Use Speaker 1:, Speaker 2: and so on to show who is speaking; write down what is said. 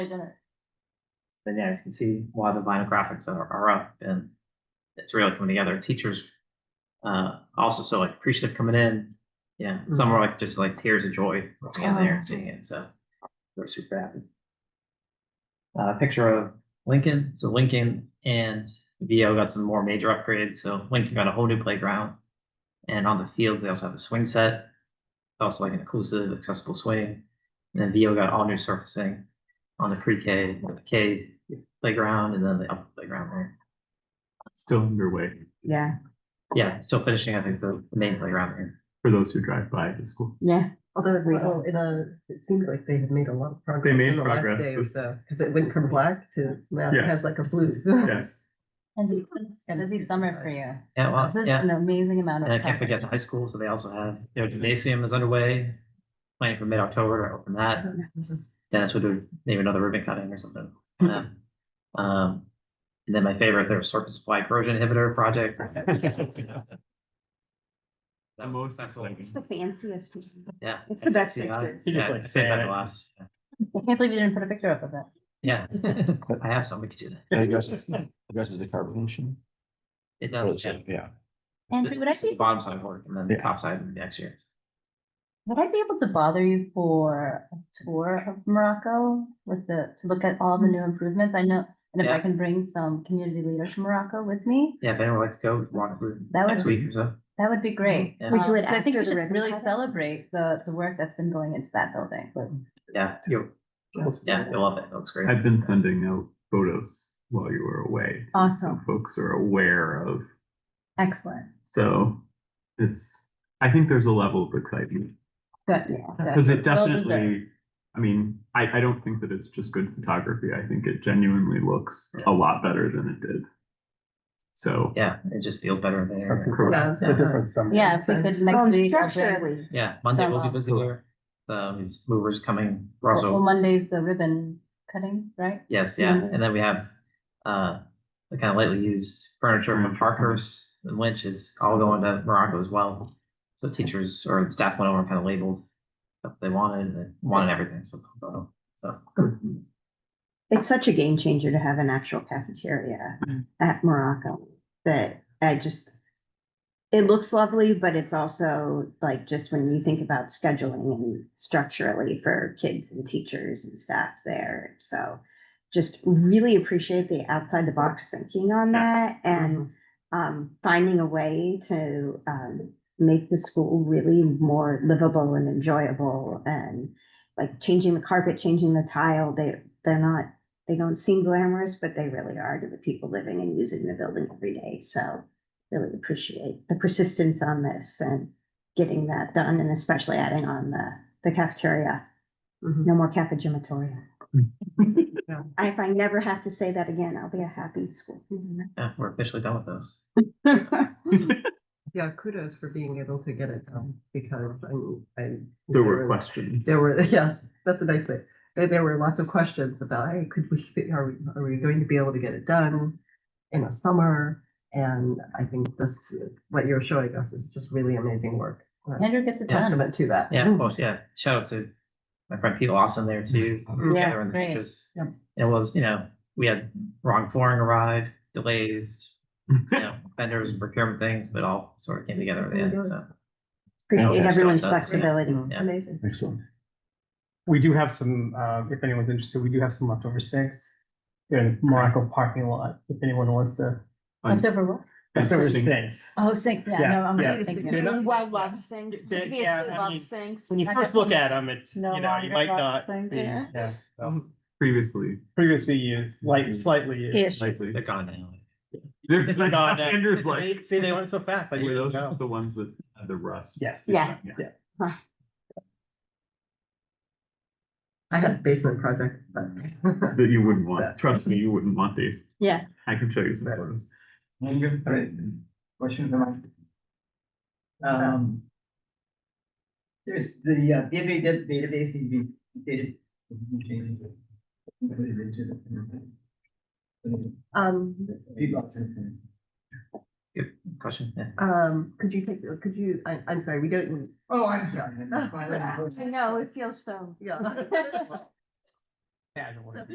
Speaker 1: But yeah, you can see why the vinyl graphics are, are up and it's really coming together. Teachers uh also so like appreciative coming in. Yeah, some are like just like tears of joy looking in there and seeing it. So we're super happy. Uh, picture of Lincoln. So Lincoln and VO got some more major upgrades. So Lincoln got a whole new playground. And on the fields, they also have a swing set. Also like an inclusive, accessible swing. And then VO got all new surfacing on the pre-K, the K playground and then the upper playground there.
Speaker 2: Still underway
Speaker 3: Yeah,
Speaker 1: Yeah, still finishing, I think, the the main playground here.
Speaker 2: for those who drive by the school.
Speaker 3: yeah.
Speaker 4: Although it's,
Speaker 3: We-
Speaker 4: oh, it, uh, it seemed like they had made a lot of progress.
Speaker 2: made
Speaker 4: in the last
Speaker 2: progress
Speaker 4: day or
Speaker 2: this-
Speaker 4: so, Cause it went from black to now it
Speaker 2: Yes.
Speaker 4: has like a blue.
Speaker 2: Yes,
Speaker 5: And it's a
Speaker 4: And
Speaker 5: busy
Speaker 4: it's
Speaker 5: summer
Speaker 4: inside.
Speaker 5: for you.
Speaker 1: Yeah, well,
Speaker 5: This is
Speaker 1: yeah.
Speaker 5: an amazing amount of.
Speaker 1: And I can't
Speaker 5: time.
Speaker 1: forget the high school, so they also have, their gymnasium is underway, planning for mid-October to open that. Dennis would do maybe another ribbon cutting or something. for them. Um, and then my favorite, their surface supply corrosion inhibitor project.
Speaker 2: The most
Speaker 1: That's all.
Speaker 2: exciting.
Speaker 3: It's the fanciest.
Speaker 1: Yeah.
Speaker 3: It's the best
Speaker 1: SCCI.
Speaker 3: picture.
Speaker 2: You just,
Speaker 1: Yeah,
Speaker 2: like,
Speaker 1: save
Speaker 2: say
Speaker 1: that
Speaker 2: it.
Speaker 1: last.
Speaker 5: I can't believe you didn't put a picture up of it.
Speaker 1: Yeah, I have some, we could do that.
Speaker 6: That addresses, addresses the carbonation.
Speaker 1: It
Speaker 6: Or
Speaker 1: does,
Speaker 6: the-
Speaker 1: yeah.
Speaker 6: Yeah.
Speaker 5: Andrew, would I
Speaker 1: This is the
Speaker 5: be,
Speaker 1: Bottom side work and then the
Speaker 6: Yeah.
Speaker 1: top side next year.
Speaker 5: would I be able to bother you for a tour of Morocco with the, to look at all the new improvements? I know, and if I
Speaker 1: Yeah.
Speaker 5: can bring some community leaders from Morocco with me,
Speaker 1: Yeah, if anyone would like to go, walk through
Speaker 5: That would
Speaker 1: next
Speaker 5: be-
Speaker 1: week or so.
Speaker 5: that would be great.
Speaker 1: Yeah.
Speaker 3: We
Speaker 5: Um,
Speaker 3: do it
Speaker 5: I think
Speaker 3: after
Speaker 5: we
Speaker 3: the
Speaker 5: should
Speaker 3: ribbon
Speaker 5: Really
Speaker 3: cutting?
Speaker 5: celebrate the, the work that's been going into that building.
Speaker 1: Yeah, you, yeah, you'll love it. It looks great.
Speaker 2: I've been sending out photos while you were away. So
Speaker 5: Awesome,
Speaker 2: folks are aware of,
Speaker 5: excellent,
Speaker 2: so it's, I think there's a level of excitement.
Speaker 5: good. good.
Speaker 2: Because it
Speaker 5: Well deserved.
Speaker 2: definitely, I mean, I, I don't think that it's just good photography. I think it genuinely looks a lot better than it did. So.
Speaker 1: Yeah, it just feels better there.
Speaker 2: Correct.
Speaker 4: Yeah.
Speaker 5: Yeah, if we
Speaker 4: So-
Speaker 5: could
Speaker 3: Well,
Speaker 5: next week. I'll bring-
Speaker 3: Structurally,
Speaker 1: Yeah, Monday will be
Speaker 5: Some, uh,
Speaker 1: busy here. Um, these movers coming,
Speaker 5: Well,
Speaker 1: Russell.
Speaker 5: Monday's the ribbon cutting, right?
Speaker 1: Yes, yeah.
Speaker 5: Mhm.
Speaker 1: And then we have, uh, the kind of lightly used furniture from
Speaker 2: Furniture.
Speaker 1: Parker's and Lynch is all going to Morocco as well. So teachers or staff went over and kind of labeled stuff they wanted and they wanted everything. So, so.
Speaker 3: it's such a game changer to have an actual cafeteria at Morocco that I just, it looks lovely, but it's also like just when you think about scheduling and structurally for kids and teachers and staff there. So just really appreciate the outside the box thinking on that
Speaker 4: Mm-hmm.
Speaker 3: and um, finding a way to um, make the school really more livable and enjoyable and like changing the carpet, changing the tile. They they're not they don't seem glamorous, but they really are to the people living and using the building every day. So really appreciate the persistence on this and getting that done and especially adding on the the cafeteria.
Speaker 4: Mhm.
Speaker 3: No more cafegematoria. If I never have to say that again, I'll be a happy school.
Speaker 1: Yeah, we're officially done with those.
Speaker 4: Yeah, kudos for being able to get it done because I, mean, I.
Speaker 2: There were
Speaker 4: was-
Speaker 2: questions.
Speaker 4: There were, yes, that's a nice way. There, there were lots of questions about, hey, could we, fit- are we, are we going to be able to get it done in the summer? And I think this, what you're showing us is just really amazing work. A
Speaker 5: Andrew gets it done.
Speaker 4: Testament to that. Mm.
Speaker 1: Yeah, well, yeah, shout out to my friend Pete Lawson there too.
Speaker 4: Mhm.
Speaker 3: Yeah,
Speaker 1: Catherine,
Speaker 5: great.
Speaker 1: because
Speaker 4: Yep.
Speaker 1: It was, you know, we had wrong flooring arrive, delays, you know, vendors and procurement things, but all sort of came together at the end, so.
Speaker 3: Appreciate
Speaker 1: Yeah.
Speaker 3: everyone's
Speaker 1: That's-
Speaker 3: flexibility.
Speaker 1: Yeah.
Speaker 4: Amazing.
Speaker 6: Excellent.
Speaker 7: We do have some, uh, if anyone's interested, we do have some leftover six. in Morocco parking lot, if anyone wants to.
Speaker 5: Left over Oh, what?
Speaker 7: Leftover
Speaker 2: Interesting.
Speaker 7: six.
Speaker 5: Oh, sink, yeah,
Speaker 7: Yeah,
Speaker 5: no, I'm
Speaker 7: yeah.
Speaker 5: really thinking.
Speaker 7: They're not-
Speaker 5: Well,
Speaker 7: love
Speaker 3: sinks,
Speaker 7: They're- yeah, previously I love mean,
Speaker 3: sinks.
Speaker 7: When you first look at them, it's, you know, you might not. be- Yeah. so
Speaker 2: Previously.
Speaker 7: Previously used,
Speaker 2: Mm.
Speaker 7: like slightly used.
Speaker 2: Likely.
Speaker 1: They're gone now.
Speaker 2: They're
Speaker 7: They're
Speaker 2: like,
Speaker 7: gone now.
Speaker 2: Andrew's like,
Speaker 7: See, they went so fast. I
Speaker 2: were
Speaker 7: didn't
Speaker 2: those
Speaker 7: know.
Speaker 2: the ones that had the rust?
Speaker 7: Yes.
Speaker 3: Yeah.
Speaker 4: I had a basement project, but.
Speaker 2: That you wouldn't want. Trust me, you wouldn't want these.
Speaker 3: Yeah.
Speaker 2: I can show you some photos.
Speaker 8: Question for Mike. Um. There's the uh, database, that database needs to be updated. You can change it. Put it into the-
Speaker 4: Um,
Speaker 8: People are sensitive.
Speaker 1: Good question, yeah.
Speaker 4: um, could you take, could you, I, I'm sorry, we don't.
Speaker 8: Oh, I'm sorry.
Speaker 4: I
Speaker 3: I know, Oh, it feels so.
Speaker 4: Yeah.
Speaker 7: Yeah, I don't want to-